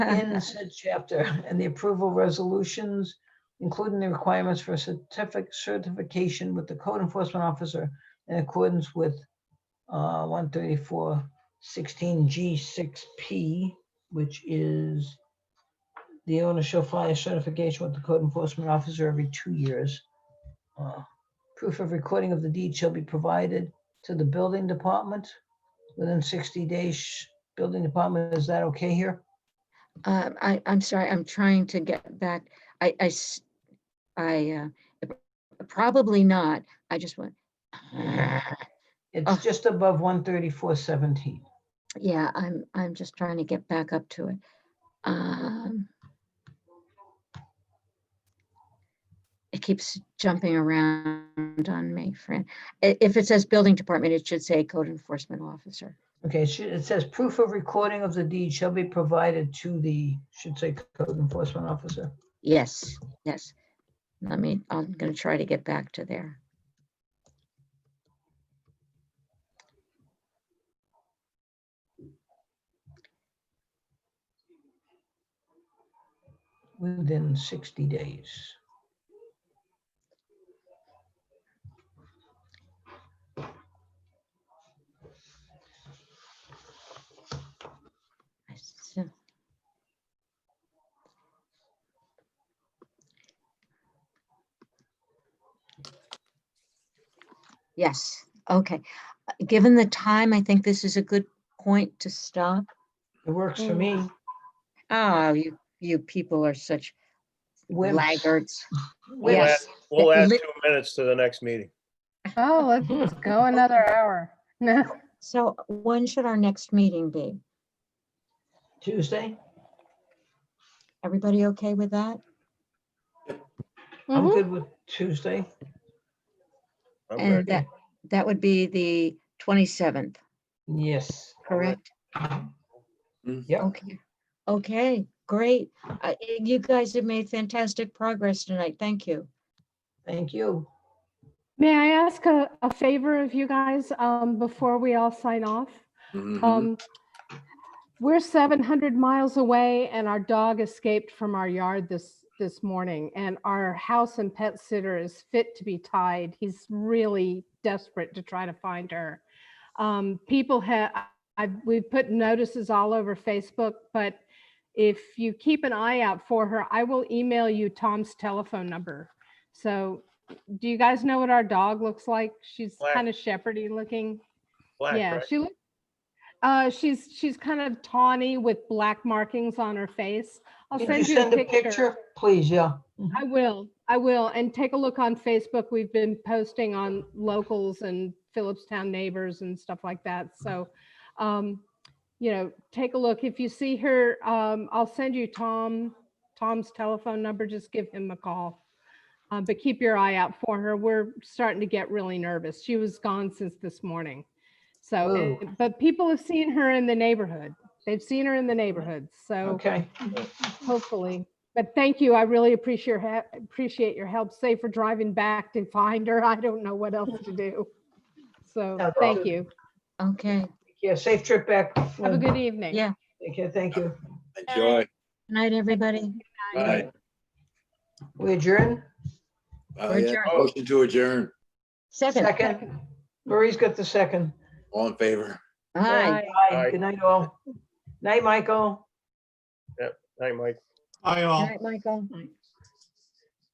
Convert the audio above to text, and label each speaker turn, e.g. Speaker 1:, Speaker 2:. Speaker 1: in said chapter and the approval resolutions, including the requirements for certific, certification with the code enforcement officer in accordance with uh, one thirty-four sixteen G six P, which is the owner shall file a certification with the code enforcement officer every two years. Uh, Proof of recording of the deed shall be provided to the building department within sixty days. Sh- Building department, is that okay here?
Speaker 2: Uh, I, I'm sorry, I'm trying to get back. I, I, s- I, uh, p- probably not. I just went. Oh.
Speaker 1: It's just above one thirty-four seventeen.
Speaker 2: Yeah, I'm, I'm just trying to get back up to it. Um, It keeps jumping around on me, Fran. I- If it says building department, it should say code enforcement officer.
Speaker 1: Okay, it should- it says proof of recording of the deed shall be provided to the, should say code enforcement officer.
Speaker 2: Yes, yes. Let me, I'm gonna try to get back to there.
Speaker 1: within 60 days.
Speaker 2: I see. Yes, okay. Uh, Given the time, I think this is a good point to stop.
Speaker 1: It works
Speaker 3: Mm.
Speaker 1: for me.
Speaker 2: Oh, you, you people are such
Speaker 1: Wimps.
Speaker 2: laggards.
Speaker 1: Wimps.
Speaker 4: We'll add,
Speaker 2: Yes.
Speaker 4: we'll add
Speaker 2: Li-
Speaker 4: two minutes to the next meeting.
Speaker 3: Oh, let's go another hour. No,
Speaker 2: So when should our next meeting be?
Speaker 1: Tuesday,
Speaker 2: Everybody okay with that?
Speaker 3: Mm-hmm.
Speaker 1: I'm good with Tuesday.
Speaker 4: I'm
Speaker 2: And
Speaker 4: ready.
Speaker 2: that, that would be the 27th,
Speaker 1: Yes,
Speaker 2: correct?
Speaker 1: yeah,
Speaker 2: Okay, okay, great. I- You guys have made fantastic progress tonight. Thank you.
Speaker 1: thank you.
Speaker 3: may I ask a, a favor of you guys, um, before we all sign off? Um, we're seven hundred miles away and our dog escaped from our yard this, this morning. And our house and pet sitter is fit to be tied. He's really desperate to try to find her. Um, people have, I, we've put notices all over Facebook, but if you keep an eye out for her, I will email you Tom's telephone number. So do you guys know what our dog looks like? She's
Speaker 4: Black.
Speaker 3: kind of shepherdy looking.
Speaker 4: Black,
Speaker 3: Yeah,
Speaker 4: right?
Speaker 3: she looks. Uh, she's she's kind of tawny with black markings on her face. I'll
Speaker 1: Can you
Speaker 3: send you
Speaker 1: send a
Speaker 3: a picture. Mm-hmm.
Speaker 1: picture, please? Yeah.
Speaker 3: I will. I will. And take a look on Facebook. We've been posting on locals and Phillipstown neighbors and stuff like that. So, um, you know, take a look. If you see her, um, I'll send you Tom Tom's telephone number. Just give him a call. Um, but keep your eye out for her. We're starting to get really nervous. She was gone since this morning. So,
Speaker 1: Whoa.
Speaker 3: and- but people have seen her in the neighborhood. They've seen her in the neighborhood. So
Speaker 1: Okay,
Speaker 3: hopefully. But thank you. I really appreciate your, he- appreciate your help. Say for driving back to find her. I don't know what else to do. So
Speaker 1: No
Speaker 3: thank
Speaker 1: problem.
Speaker 3: you.
Speaker 2: Okay,
Speaker 1: yeah, safe trip back.
Speaker 3: Have a good evening.
Speaker 2: yeah.
Speaker 1: Okay, thank you.
Speaker 5: Enjoy.
Speaker 2: Good night, everybody.
Speaker 5: Bye.
Speaker 1: We adjourn?
Speaker 5: Uh, yeah,
Speaker 2: Adjourn.
Speaker 5: Motion to adjourn.
Speaker 2: Seven.
Speaker 1: Second. Marie's got the second.
Speaker 5: All in favor?
Speaker 2: Hi.
Speaker 3: Bye.
Speaker 1: Aye. Good night, all. Night, Michael.
Speaker 4: Night, Mike.
Speaker 6: Hi all.
Speaker 2: Michael.